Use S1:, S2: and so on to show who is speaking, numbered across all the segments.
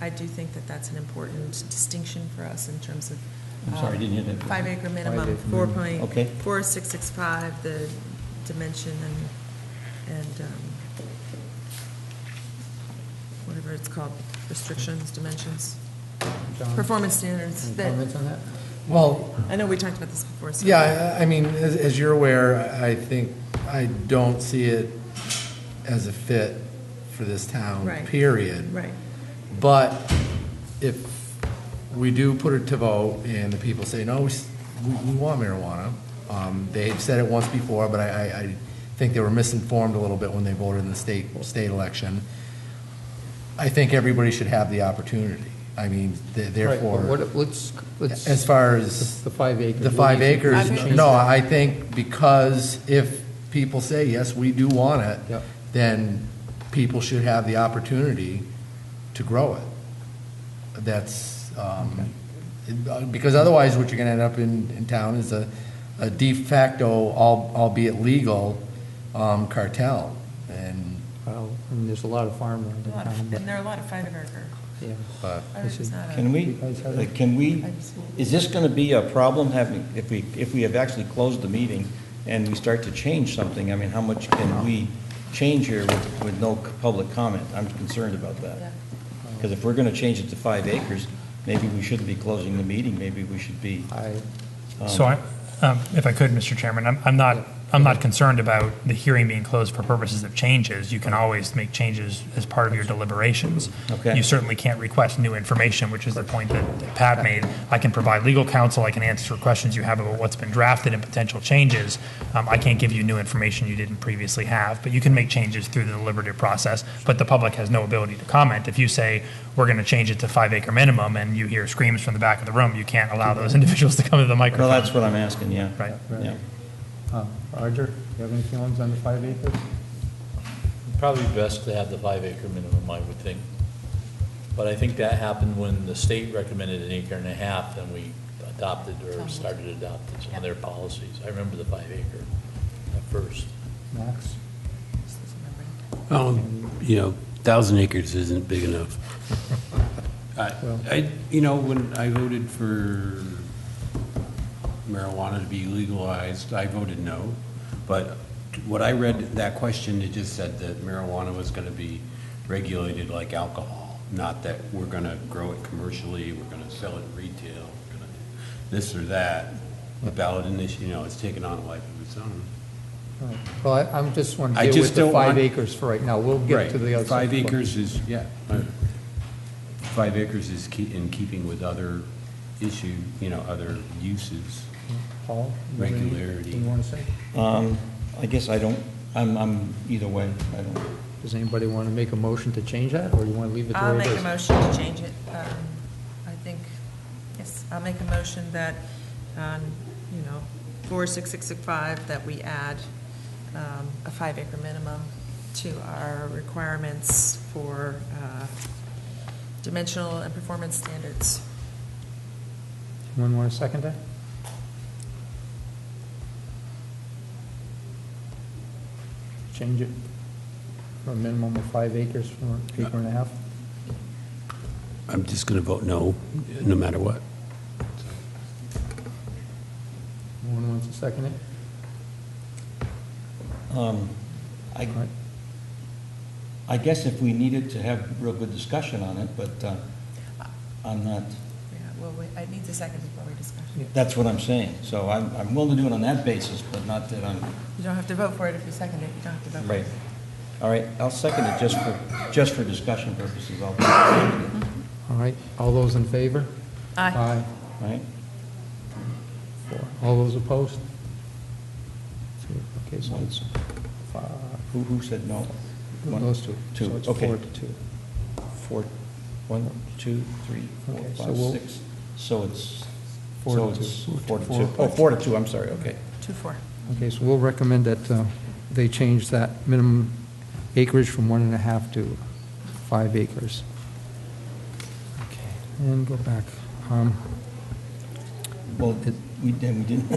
S1: I do think that that's an important distinction for us in terms of. uh,
S2: I'm sorry, I didn't hear that.
S1: Five acre
S2: Five
S1: minimum,
S2: acre
S1: four
S2: minimum.
S1: point,
S2: Okay.
S1: four six six five, the dimension and, and, um, whatever it's called, restrictions, dimensions,
S3: John,
S1: performance standards
S3: any
S1: that,
S3: comments on that?
S4: Well,
S1: I know we talked about this before, so.
S4: Yeah, I I mean, as, as you're aware, I think, I don't see it as a fit for this town,
S1: Right.
S4: period.
S1: Right,
S4: But if we do put it to vote and the people say, no, we, s- we- we want marijuana, um, they've said it once before, but I, I, I think they were misinformed a little bit when they voted in the state, state election. I think everybody should have the opportunity. I mean,
S3: Right,
S4: th-
S3: but
S4: therefore,
S3: what- Let's, let's.
S4: as far
S3: It's
S4: as
S3: The five acres.
S4: the five
S3: We need to- we
S4: acres,
S3: need to change
S4: no,
S3: that.
S4: I think because if people say, yes, we do want it,
S3: Yep.
S4: then people should have the opportunity to grow it. That's, um, it- because otherwise, what you're gonna end up in, in town is a, a de facto, al- albeit legal, um, cartel. And,
S3: Well, and there's a lot of farmland in
S1: and
S3: town,
S1: there are a lot of five acre,
S3: but, yeah.
S4: but,
S1: ours is not a.
S2: Can we, uh, can we, is this going to be a problem having, if we, if we have actually closed the meeting and we start to change something, I mean, how much can we change here with, with no c- public comment? I'm concerned about
S1: Yeah.
S2: that. Because if we're going to change it to five acres, maybe we shouldn't be closing the meeting, maybe we should be.
S4: Uh,
S3: I,
S5: So I, um, if I could, Mr. Chairman, I'm, I'm not, I'm not concerned about the hearing being closed for purposes of changes. You can always make changes as part of your deliberations.
S2: Okay.
S5: You certainly can't request new information, which is the point that that Pat made. I can provide legal counsel, I can answer questions you have about what's been drafted and potential changes. Um, I can't give you new information you didn't previously have, but you can make changes through the deliberative process, but the public has no ability to comment. If you say, we're going to change it to five acre minimum, and you hear screams from the back of the room, you can't allow those individuals to come to the microphone.
S2: Mm-hmm. Well, that's what I'm asking, yeah.
S5: Right.
S2: Yeah.
S3: uh, Roger, you have any feelings on the five acres?
S6: Probably best to have the five acre minimum, I would think. But I think that happened when the state recommended an acre and a half, then we adopted or started adopting some of their policies. I remember the five acre at first.
S3: Max?
S7: Well, Um, you know, 1,000 acres isn't big enough. I-
S3: Well-
S7: I, you know, when I voted for marijuana to be legalized, I voted no. But what I read that question, it just said that marijuana was going to be regulated like alcohol, not that we're going to grow it commercially, we're going to sell it retail, we're going to this or that. The ballot initiative, you know, it's taken on a life of its own.
S3: All right. Well, I- I'm just want to
S7: I
S3: deal
S7: just
S3: with the
S7: don't
S3: five
S7: want-
S3: acres for right now. We'll
S7: Right.
S3: get to the other.
S7: Five
S3: stuff.
S7: acres is, yeah, uh, five acres is ke- in keeping with other issue, you know, other uses.
S3: Paul? you have any-
S7: Regularity.
S3: anything you want to say?
S2: Um, I guess I don't, I'm, I'm either way, I don't.
S3: Does anybody want to make a motion to change that, or you want to leave it the
S1: I'll
S3: way it
S1: make
S3: is?
S1: a motion to change it. Um, I think, yes, I'll make a motion that, um, you know, four, six, six, six, five, that we add um, a five acre minimum to our requirements for uh, dimensional and performance standards.
S3: Anyone want to second that? Change it from a minimum of five acres from acre and a half?
S7: I'm just going to vote no, no matter what.
S3: No one wants to second it?
S2: Um, I,
S3: All right.
S2: I guess if we needed to have real good discussion on it, but uh, I'm not,
S1: Yeah, well, we- I need the second before we discuss.
S3: Yeah.
S2: that's what I'm saying. So I'm, I'm willing to do it on that basis, but not that I'm,
S1: You don't have to vote for it if you second it, you don't have to vote. for
S2: right.
S1: it.
S2: All right, I'll second it just for, just for discussion purposes, I'll, all
S3: All right, all those in favor?
S1: Aye.
S2: right?
S3: Four. All those opposed? Two. Okay, so
S2: So
S3: it's
S2: it's-
S3: five,
S2: Who, who said no? One,
S3: those two.
S2: Two,
S3: So it's
S2: okay.
S3: four to two.
S2: Four, one, two, three, four,
S3: Okay, so
S2: five,
S3: we'll-
S2: six. So it's,
S3: Four
S2: so
S3: to
S2: it's
S3: two.
S2: four to
S3: Four.
S2: two. Oh, four to two, I'm sorry, okay.
S1: Two, four.
S3: Okay, so we'll recommend that uh, they change that minimum acreage from one and a half to five acres. Okay, And go back. Um,
S2: Well, it- we, then we didn't,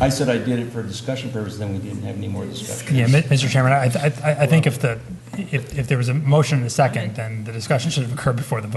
S2: I said I did it for discussion purposes, then we didn't have any more discussion.
S5: Yeah, Mi- Mr. Chairman, I, I, I- I think if the, if, if there was a motion and a second, then the discussion should have occurred before the vote.